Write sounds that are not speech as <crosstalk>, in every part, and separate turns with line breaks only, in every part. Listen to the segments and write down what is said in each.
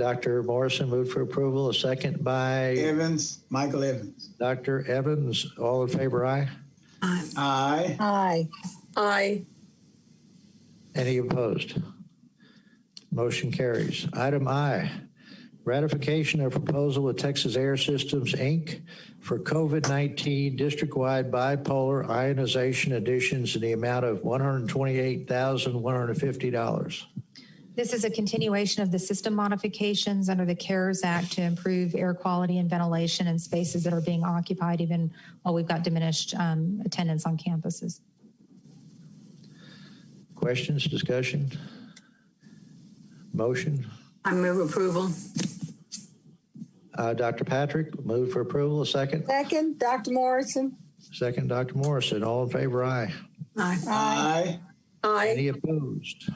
Dr. Morrison moved for approval, a second by
Evans, Michael Evans.
Dr. Evans. All in favor, aye?
Aye.
Aye.
Aye.
Any opposed? Motion carries. Item I, ratification of proposal with Texas Air Systems, Inc. for COVID-19 district-wide bipolar ionization additions in the amount of $128,150.
This is a continuation of the system modifications under the CARES Act to improve air quality and ventilation in spaces that are being occupied even while we've got diminished um, attendance on campuses.
Questions, discussion? Motion?
I move approval.
Uh, Dr. Patrick, move for approval, a second.
Second, Dr. Morrison.
Second, Dr. Morrison, all in favor, aye.
Aye.
Aye.
Aye.
Any opposed?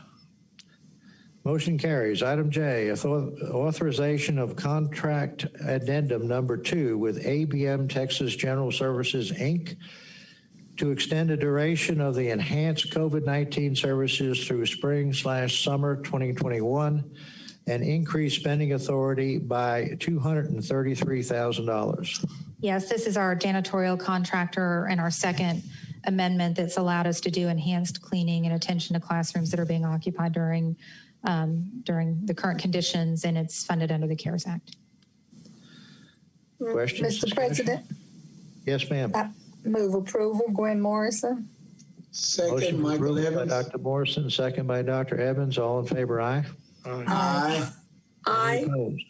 Motion carries. Item J, author- authorization of contract addendum number two with ABM Texas General Services, Inc. to extend the duration of the enhanced COVID-19 services through spring slash summer 2021 and increase spending authority by $233,000.
Yes, this is our janitorial contractor and our second amendment that's allowed us to do enhanced cleaning and attention to classrooms that are being occupied during um, during the current conditions, and it's funded under the CARES Act.
Questions?
Mr. President,
Yes, ma'am.
move approval. Gwen Morrison.
Second,
Motion for
Michael
approval by
Evans.
Dr. Morrison, second by Dr. Evans. All in favor, aye.
Aye.
Aye.
Opposed?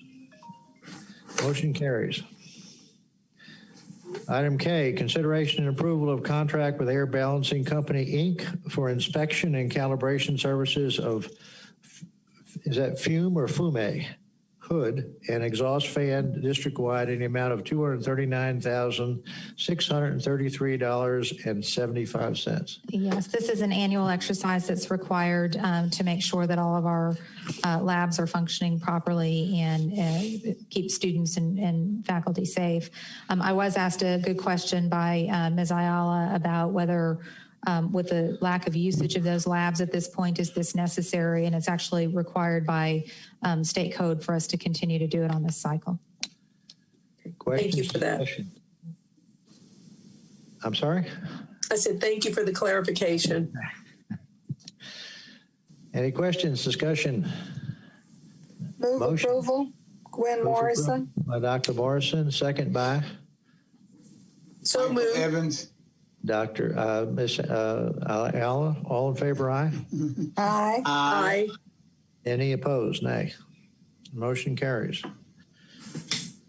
Motion carries. Item K, consideration and approval of contract with Air Balancing Company, Inc. for inspection and calibration services of, is that fume or fume? Hood and exhaust fan district-wide in the amount of $239,633.75.
Yes, this is an annual exercise that's required um, to make sure that all of our uh, labs are functioning properly and uh, keep students and, and faculty safe. Um, I was asked a good question by uh, Ms. Ayala about whether, um, with the lack of usage of those labs at this point, is this necessary? And it's actually required by um, state code for us to continue to do it on this cycle.
Thank you
Questions,
for that.
discussion? I'm sorry?
I said, thank you for the clarification.
Any questions, discussion
Move
Motion.
approval. Gwen
Move
Morrison.
by Dr. Morrison, second by
So
Michael
moved.
Evans.
Dr., uh, Ms. uh, Alla. All in favor, aye.
Aye.
Aye.
Aye.
Any opposed, nay. Motion carries.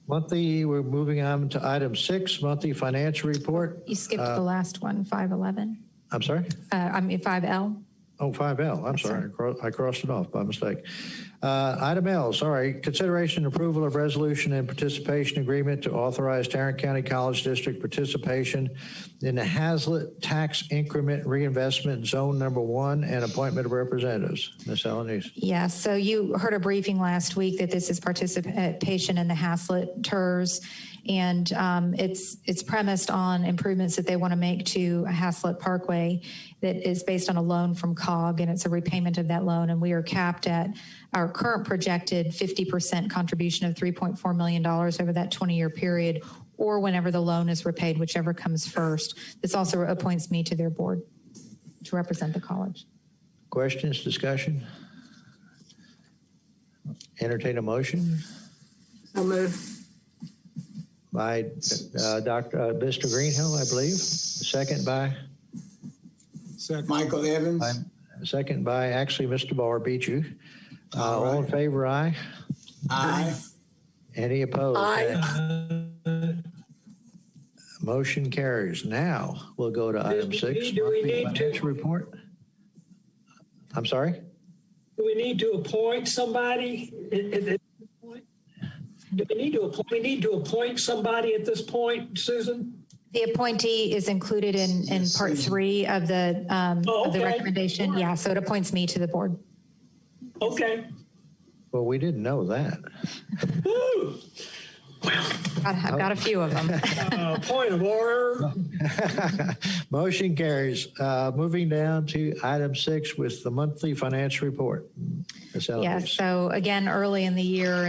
Monthly, we're moving on to item six, monthly financial report.
You skipped the last one, 511,
I'm sorry?
uh, I mean, 5L.
Oh, 5L, I'm sorry, I cro- I crossed it off by mistake. Uh, Item L, sorry, consideration and approval of resolution and participation agreement to authorize Tarrant County College District participation in the Hazlet Tax Increment Reinvestment Zone Number One and appointment of representatives. Ms. Alanis.
Yes, so you heard a briefing last week that this is participation in the Haslett TERS. And um, it's, it's premised on improvements that they want to make to Haslett Parkway that is based on a loan from COG and it's a repayment of that loan. And we are capped at our current projected 50% contribution of $3.4 million over that 20-year period or whenever the loan is repaid, whichever comes first. This also appoints me to their board to represent the college.
questions, discussion? Entertain a motion
So moved.
by uh, Dr., uh, Mr. Greenhill, I believe, second by?
Michael Evans.
Second by, actually, Mr. Barr beat you. Uh, All in favor, aye.
Aye.
Any opposed?
Aye.
Motion carries. Now, we'll go to item
we
six.
need- do we
monthly
need to-
Financial report. I'm sorry?
Do we need to appoint somebody at, at this point? Do we need to, appoint? we need to appoint somebody at this point, Susan?
The appointee is included in, in
Yes,
part
yes.
three of the, um,
Oh,
of the
okay.
recommendation. Yeah, so it appoints me to the board.
Okay.
Well, we didn't know that. <laughs>
Woo!
I've I've got a few of <laughs> them.
Uh, Point of order.
Motion carries. Uh, Moving down to item six with the monthly financial report. Ms. Eloise.
Yeah, so again, early in the year